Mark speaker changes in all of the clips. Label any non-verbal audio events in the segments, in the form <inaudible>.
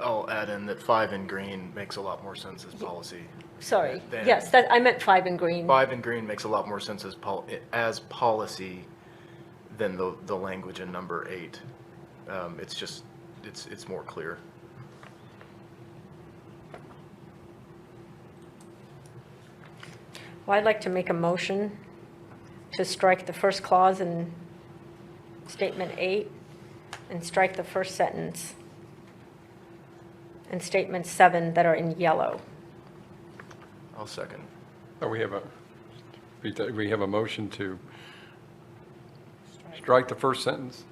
Speaker 1: I'll add in that five in green makes a lot more sense as policy.
Speaker 2: Sorry.
Speaker 1: Then-
Speaker 2: Yes, that, I meant five in green.
Speaker 1: Five in green makes a lot more sense as pol, as policy than the, the language in number eight. Um, it's just, it's, it's more clear.
Speaker 2: Well, I'd like to make a motion to strike the first clause in statement eight and strike the first sentence and statement seven that are in yellow.
Speaker 1: I'll second.
Speaker 3: Oh, we have a, we have a motion to strike the first sentence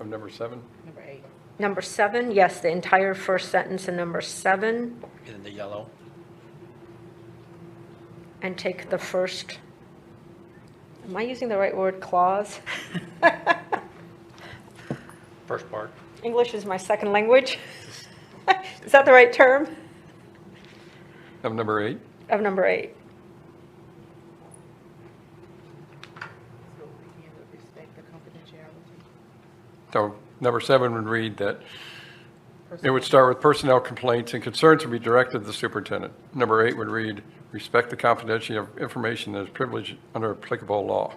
Speaker 3: of number seven?
Speaker 4: Number eight.
Speaker 2: Number seven, yes, the entire first sentence in number seven
Speaker 5: in the yellow.
Speaker 2: and take the first, am I using the right word, clause? <laughs>
Speaker 5: First part,
Speaker 2: English is my second language. <laughs> Is that the right term?
Speaker 3: Of number eight?
Speaker 2: Of number eight.
Speaker 4: So again, with respect to confidentiality.
Speaker 3: So number seven would read that it would start with personnel complaints and concerns would be directed to the superintendent. Number eight would read, respect the confidentiality of information that is privileged under applicable law.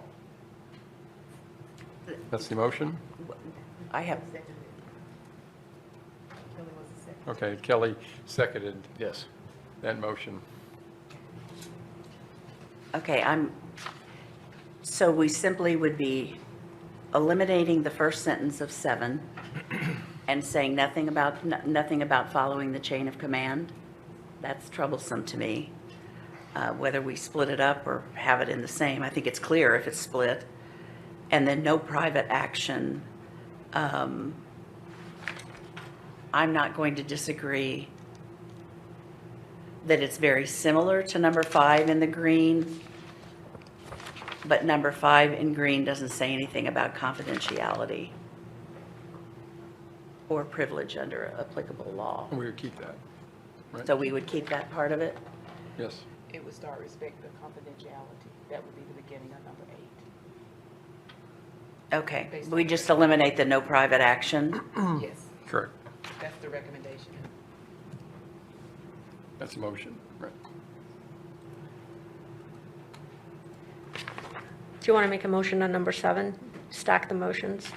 Speaker 3: That's the motion?
Speaker 6: I have,
Speaker 4: Kelly was the second.
Speaker 3: Okay, Kelly seconded
Speaker 1: Yes.
Speaker 3: that motion.
Speaker 6: okay, I'm, so we simply would be eliminating the first sentence of seven and saying nothing about, no- nothing about following the chain of command? That's troublesome to me, uh, whether we split it up or have it in the same. I think it's clear if it's split. And then no private action. Um, I'm not going to disagree that it's very similar to number five in the green, but number five in green doesn't say anything about confidentiality or privilege under applicable law.
Speaker 3: We would keep that, right?
Speaker 6: So we would keep that part of it?
Speaker 3: Yes.
Speaker 4: It would start respect to confidentiality. That would be the beginning of number eight.
Speaker 6: Okay, we just eliminate the no private action?
Speaker 3: Mm.
Speaker 4: Yes,
Speaker 3: Correct.
Speaker 4: that's the recommendation.
Speaker 3: That's the motion, right?
Speaker 2: Do you want to make a motion on number seven? Stack the motions?
Speaker 6: <coughs>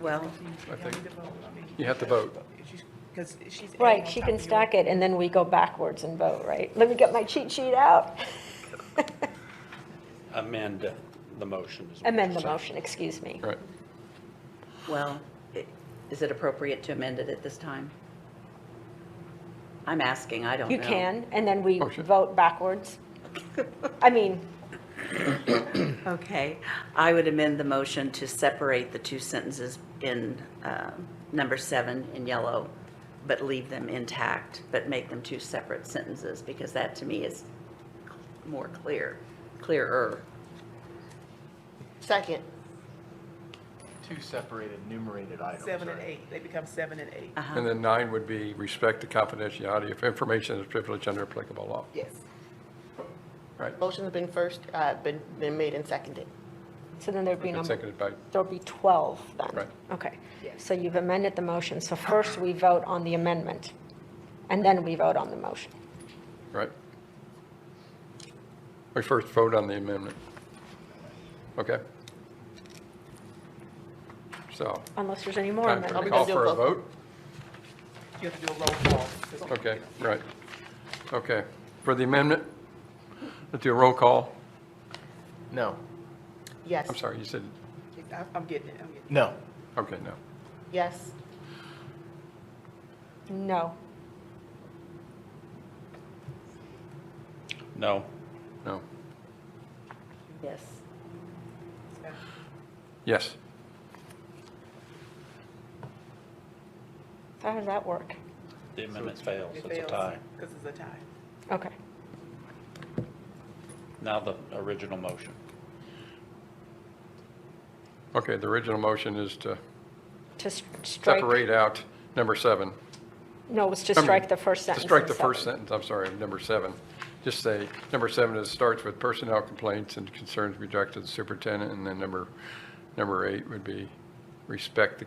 Speaker 6: Well,
Speaker 3: I think you have to vote.
Speaker 4: Because she's.
Speaker 2: Right, she can stack it, and then we go backwards and vote, right? Let me get my cheat sheet out.
Speaker 5: amend the motion. is what
Speaker 2: Amend
Speaker 5: you're
Speaker 2: the
Speaker 5: saying.
Speaker 2: motion, excuse me.
Speaker 3: Right.
Speaker 6: well, i- is it appropriate to amend it at this time? I'm asking, I don't know.
Speaker 2: You can, and then we
Speaker 3: Oh, sure.
Speaker 2: vote backwards. I mean,
Speaker 6: Okay, I would amend the motion to separate the two sentences in um, number seven in yellow, but leave them intact, but make them two separate sentences, because that to me is more clear, clearer.
Speaker 7: Second.
Speaker 1: Two separated enumerated items.
Speaker 4: Seven and
Speaker 1: right?
Speaker 4: eight, they become seven and eight.
Speaker 3: And then nine would be respect the confidentiality of information that is privileged under applicable law,
Speaker 4: Yes.
Speaker 3: right?
Speaker 7: Motion has been first, uh, been, been made and seconded.
Speaker 2: so then there'd be
Speaker 3: And
Speaker 2: number,
Speaker 3: Seconded by,
Speaker 2: there'll be 12 then.
Speaker 3: Right.
Speaker 2: Okay,
Speaker 4: Yes.
Speaker 2: so you've amended the motion, so first we vote on the amendment, and then we vote on the motion.
Speaker 3: right? We first vote on the amendment. Okay? So,
Speaker 2: Unless there's any more
Speaker 3: time for
Speaker 7: we
Speaker 3: a
Speaker 2: amendments.
Speaker 3: call
Speaker 7: gonna do a
Speaker 3: for a
Speaker 7: vote?
Speaker 3: vote?
Speaker 4: You have to do a roll call.
Speaker 3: Okay, right. Okay, for the amendment, let's do a roll call.
Speaker 1: No,
Speaker 7: Yes.
Speaker 3: I'm sorry, you said,
Speaker 4: I- I'm getting it, I'm getting
Speaker 1: no.
Speaker 3: okay, no.
Speaker 7: Yes.
Speaker 2: No,
Speaker 5: No,
Speaker 3: No.
Speaker 6: Yes.
Speaker 4: it.
Speaker 3: Yes.
Speaker 2: how does that work?
Speaker 5: the amendment fails,
Speaker 4: It
Speaker 5: it's a
Speaker 4: fails,
Speaker 5: tie.
Speaker 4: Because it's a tie.
Speaker 2: Okay,
Speaker 5: Now the original motion.
Speaker 3: Okay, the original motion is to
Speaker 2: to s- strike.
Speaker 3: separate out number seven.
Speaker 2: No, it was to
Speaker 3: Number-
Speaker 2: strike the first sentence.
Speaker 3: To strike
Speaker 2: in
Speaker 3: the first
Speaker 2: seven.
Speaker 3: sentence, I'm sorry, of number seven. Just say, number seven is starts with personnel complaints and concerns be directed to the superintendent, and then number, number eight would be respect the